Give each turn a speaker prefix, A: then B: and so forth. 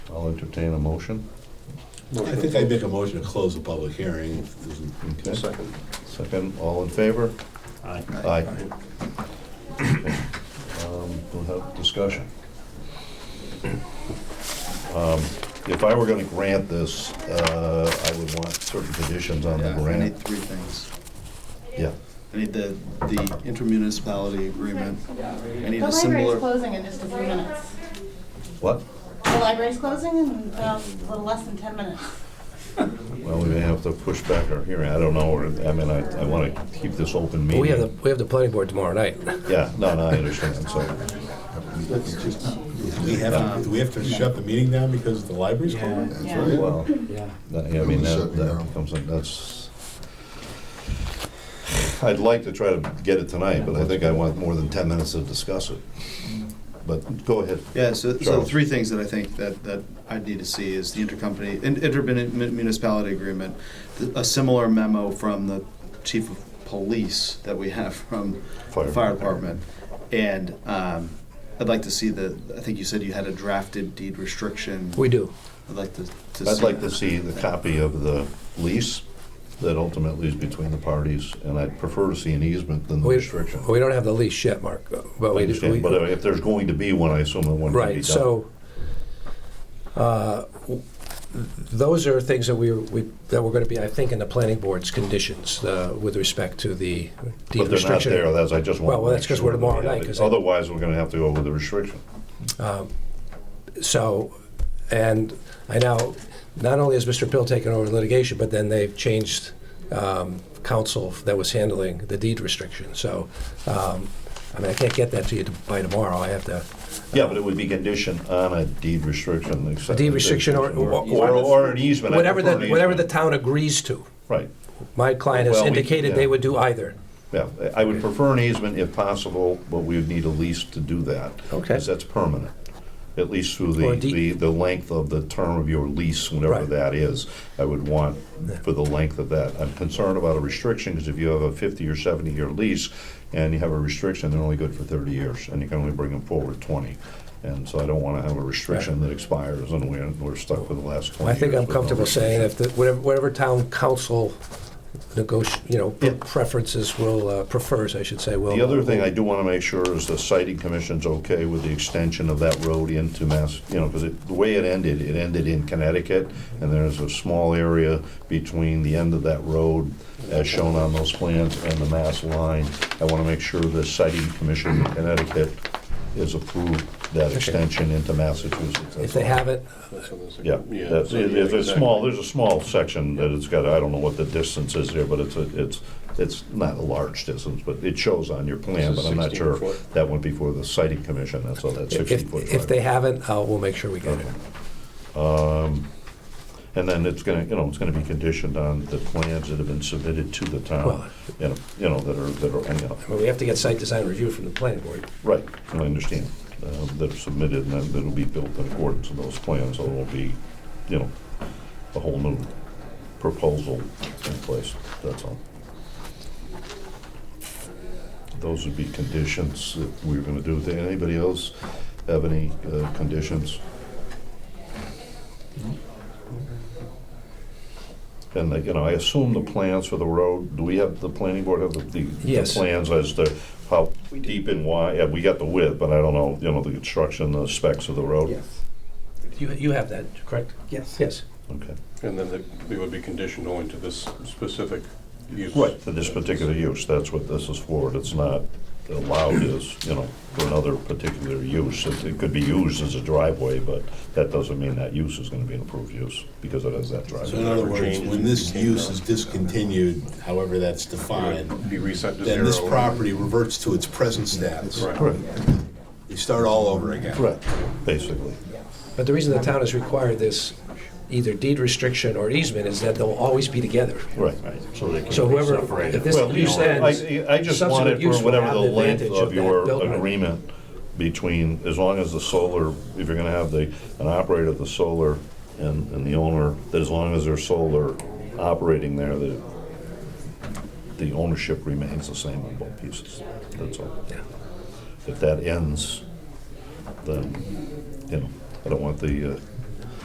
A: I'll entertain a motion.
B: I think I'd make a motion to close the public hearing. if there's an-
A: Okay. Second, all in favor?
B: Aye.
A: Aye. Um, We'll have discussion. Um, If I were gonna grant this, uh, I would want certain conditions on the
C: Yeah, I need
A: grant.
C: three things.
A: Yeah,
C: I need the, the intermunicipality agreement. I need
D: The
C: a
D: library's
C: similar,
D: closing in just a few minutes.
A: what?
D: The library's closing in um, a little less than 10 minutes.
A: Well, we may have to push back our hearing, I don't know, or, I mean, I, I wanna keep this open
E: Well,
A: meeting.
E: We have the, we have the planning board tomorrow night.
A: Yeah, no, no, I understand, so,
B: We have, to- we have to shut the meeting down because the library's closed?
D: Yeah.
A: well,
E: Yeah.
A: that- yeah, I mean, that, that becomes, a- that's, I'd like to try to get it tonight, but I think I want more than ten minutes to discuss it. But go ahead.
C: yeah, so, so
A: Charles.
C: three things that I think that, that I'd need to see is the intercompany, in- intermunicipality agreement, th- a similar memo from the chief of police that we have from
A: Fire.
C: the fire department. And, um, I'd like to see the, I think you said you had a drafted deed restriction.
E: We do.
C: I'd like to, to see.
A: I'd like to
C: that.
A: see the copy of the lease that ultimately is between the parties, and I'd prefer to see an easement than the
E: We,
A: restriction.
E: we don't have the lease yet, Mark, but
A: I
E: we,
A: understand, but
E: we,
A: if there's going to be one, I assume that one can be done.
E: right, so, uh, w- those are things that we, we, that we're gonna be, I think, in the planning board's conditions, uh, with respect to the
A: But
E: deed
A: they're not
E: restriction.
A: there, that's, I just want.
E: Well, well, that's 'cause we're tomorrow night, 'cause I-
A: Otherwise, we're gonna have to go with the restriction.
E: So, and I now, not only has Mr. Pill taken over litigation, but then they've changed um, counsel that was handling the deed restriction. So, um, I mean, I can't get that to you by tomorrow. I have to,
A: Yeah, but it would be conditioned on a deed restriction, except.
E: deed restriction or-
A: Or, or an easement. I
E: whatever
A: prefer
E: the,
A: an
E: whatever the
A: easement.
E: town agrees to.
A: Right,
E: My client has
A: Well, we-
E: indicated they
A: yeah.
E: would do either.
A: yeah, I would prefer an easement if possible, but we would need a lease to do that.
E: Okay.
A: Because that's permanent, at least through the,
E: Or a deed-
A: the, the length of the term of your lease, whenever
E: Right.
A: that is. I would want
E: Yeah.
A: for the length of that. I'm concerned about a restriction, because if you have a fifty or seventy year lease and you have a restriction, they're only good for thirty years, and you can only bring them forward twenty. And so I don't wanna have a restriction that expires and we're, we're stuck with the last twenty
E: I
A: years.
E: think I'm
A: with no
E: comfortable
A: restriction.
E: saying if, the- whatever, whatever town council negoti, you know,
A: Yeah.
E: preferences will, uh, prefers, I should say, will.
A: The other thing I do want to make sure is the sighting commission's okay with the extension of that road into Mass, you know, because the way it ended, it ended in Connecticut, and there's a small area between the end of that road, as shown on those plans, and the Mass line. I want to make sure the sighting commission in Connecticut is approved that extension into Massachusetts.
E: If they haven't,
A: Yeah, that's, it- it's a small, there's a small section that it's got, I don't know what the distance is there, but it's, a- it's, it's not a large distance, but it shows on your plan, but I'm not sure. That went before the sighting commission, that's all, that sixteen
E: if,
A: foot
E: if they
A: driveway.
E: haven't, uh, we'll make sure we get it.
A: Um, And then it's gonna, you know, it's gonna be conditioned on the plans that have been submitted to the
E: Well-
A: town, you know, you know, that are, that are, you know,
E: Well, we have to get site design review from the planning board.
A: right, I understand. uh, That are submitted and then that'll be built in accordance with those plans, so it'll be, you know, a whole new proposal in place, that's all. Those would be conditions that we were gonna do. Did anybody else have any uh, conditions? And, like, you know, I assume the plans for the road, do we have, the planning board have the, the the
E: Yes.
A: plans as to how deep and wide? Yeah, we got the width, but I don't know, you know, the construction, the specs of the road?
F: Yes,
E: You, you have that, correct?
F: yes.
E: Yes.
A: Okay.
G: And then they- they would be conditioned only to this specific use.
A: Right, for this particular use, that's what this is for, it's not allowed as, you know, for another particular use. It it could be used as a driveway, but that doesn't mean that use is gonna be an approved use, because it has that
B: So in
A: driveway.
B: other words, when this use is discontinued, however that's defined,
G: Be reset to zero.
B: then this property reverts to its present status.
G: Right.
A: Correct,
B: We start all over again.
A: correct, basically.
E: But the reason the town has required this, either deed restriction or easement, is that they'll always be together.
A: Right. So they
E: So whoever, if this
A: Well, you
E: use
A: know,
E: ends,
A: I, I just
E: subsequent
A: wanted
E: use
A: for
E: will
A: whatever
E: have
A: the
E: the
A: length
E: advantage
A: of
E: of
A: your
E: that building.
A: agreement between, as long as the solar, if you're gonna have the, an operator of the solar and, and the owner, that as long as there's solar operating there, that the ownership remains the same on both pieces, that's all.
E: Yeah.
A: If that ends, then, you know, I don't want the uh,